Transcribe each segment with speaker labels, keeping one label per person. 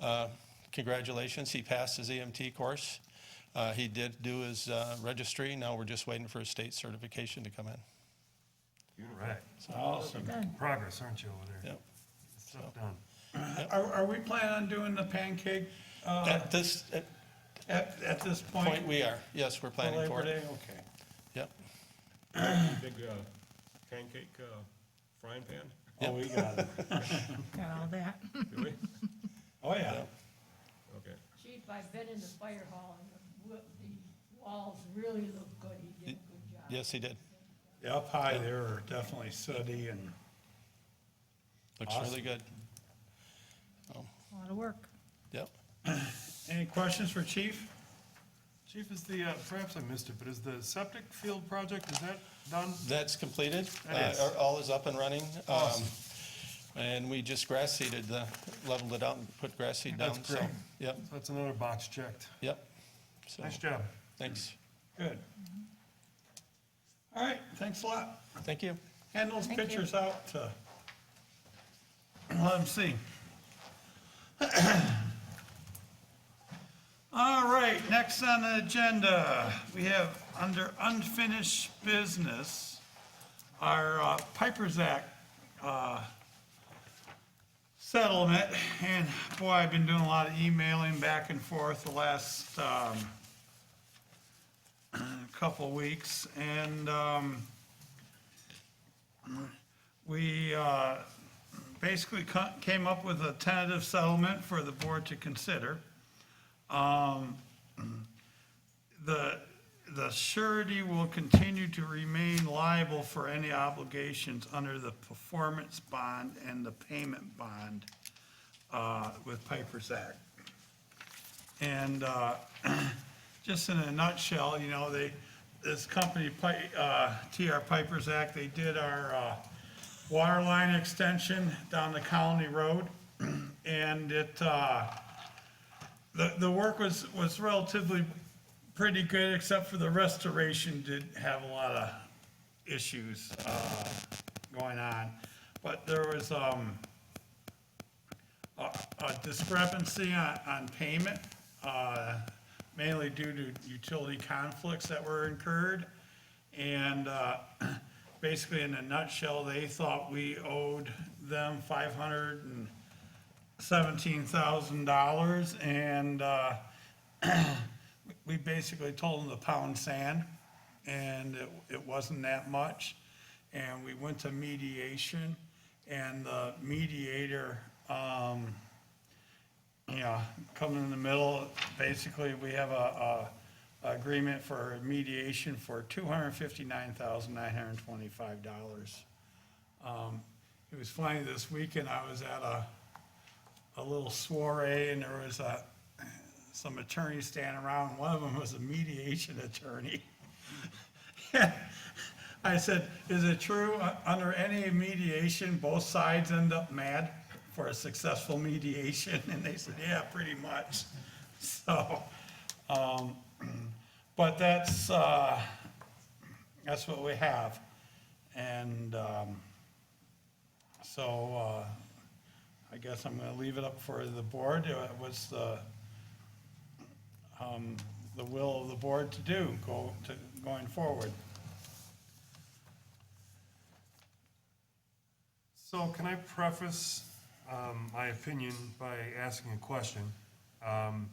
Speaker 1: Uh, Congratulations, he passed his EMT course. Uh, He did do his uh, registry, now we're just waiting for his state certification to come in.
Speaker 2: All right. Awesome. Progress, aren't you, over there?
Speaker 1: Yep.
Speaker 2: Stuff done.
Speaker 3: Are, are we planning on doing the pancake uh,
Speaker 1: At this at
Speaker 3: at, at this
Speaker 1: point,
Speaker 3: point?
Speaker 1: we are, yes, we're planning for
Speaker 3: Labor Day?
Speaker 1: it.
Speaker 3: Okay.
Speaker 1: Yep,
Speaker 4: Big uh, pancake uh, frying pan,
Speaker 3: Oh, we got it.
Speaker 5: Got all that.
Speaker 4: do we?
Speaker 3: Oh, yeah.
Speaker 4: Okay.
Speaker 6: Chief, I've been in the fire hall and the, wo- the walls really look good. He did a good job.
Speaker 1: yes, he did.
Speaker 3: Yeah, Up high there are definitely sooty and,
Speaker 1: Looks really good,
Speaker 5: A lot of work.
Speaker 1: yep.
Speaker 3: any questions for chief?
Speaker 2: Chief, is the, uh, perhaps I missed it, but is the septic field project, is that done?
Speaker 1: That's completed.
Speaker 2: That is.
Speaker 1: Uh, All is up and running. Um, And we just grass seeded, the- leveled it out and put grass seed down.
Speaker 2: That's
Speaker 1: so-
Speaker 2: great.
Speaker 1: Yep,
Speaker 2: So That's another box checked.
Speaker 1: yep. So,
Speaker 2: Nice job.
Speaker 1: Thanks.
Speaker 3: Good.
Speaker 1: Mm-hmm.
Speaker 3: All right, thanks a lot.
Speaker 1: Thank you.
Speaker 3: Hand those
Speaker 5: Thank you.
Speaker 3: pictures out to, let them see. All right, next on the agenda, we have under unfinished business, our uh, Piper's Act uh, settlement. And boy, I've been doing a lot of emailing back and forth the last um, couple weeks. And, um, we uh, basically co- came up with a tentative settlement for the board to consider. Um, The, the surety will continue to remain liable for any obligations under the performance bond and the payment bond uh, with Piper's Act. And uh, just in a nutshell, you know, they, this company, Pi- uh, TR Piper's Act, they did our uh, water line extension down the county road. And it, uh, the, the work was, was relatively pretty good, except for the restoration did have a lot of issues uh, going on. But there was um, a a discrepancy on, on payment, uh, mainly due to utility conflicts that were incurred. And uh, basically, in a nutshell, they thought we owed them five hundred and seventeen thousand dollars, and uh, we basically told them to pound sand, and it, it wasn't that much. And we went to mediation, and the mediator, um, you know, coming in the middle, basically, we have a, a agreement for mediation for two hundred fifty-nine thousand nine hundred twenty-five dollars. It was funny, this weekend I was at a, a little soiree and there was a, some attorneys standing around. One of them was a mediation attorney. I said, is it true, uh, under any mediation, both sides end up mad for a successful mediation? And they said, yeah, pretty much. So, um, but that's, uh, that's what we have. And, um, so, uh, I guess I'm gonna leave it up for the board, Uh, what's the, um, the will of the board to do, go, to, going forward?
Speaker 2: So can I preface um, my opinion by asking a question? Um,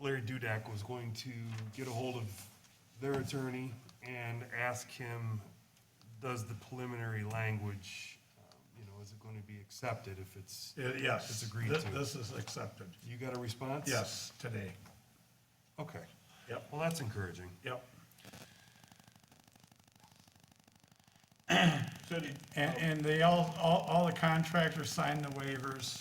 Speaker 2: Larry Dudak was going to get a hold of their attorney and ask him, does the preliminary language, um, you know, is it going to be accepted if it's,
Speaker 3: Uh, Yes.
Speaker 2: It's agreed
Speaker 3: Thi-
Speaker 2: to.
Speaker 3: This is accepted,
Speaker 2: you got a response?
Speaker 3: yes, today,
Speaker 2: Okay.
Speaker 3: Yep.
Speaker 2: Well, that's encouraging.
Speaker 3: yep.
Speaker 4: So did,
Speaker 3: And, and they all, all, all the contractors signed the waivers.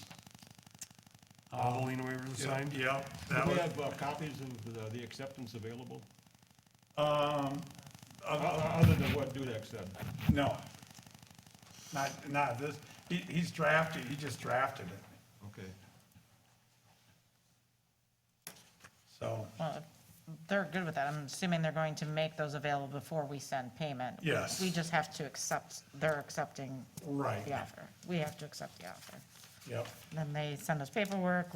Speaker 2: All the lien waivers signed?
Speaker 3: Yep, that
Speaker 4: do we
Speaker 3: was,
Speaker 4: have uh, copies of the- the acceptance available?
Speaker 3: um, uh,
Speaker 4: O- o- Other than what Dudek said.
Speaker 3: no. Not, not this, he, he's drafted, he just drafted it,
Speaker 4: Okay.
Speaker 3: so,
Speaker 7: Well, if They're good with that. I'm assuming they're going to make those available before we send payment.
Speaker 3: Yes.
Speaker 7: We just have to accept, they're accepting
Speaker 3: right,
Speaker 7: the offer. We have to accept the offer.
Speaker 3: yep.
Speaker 7: Then they send us paperwork,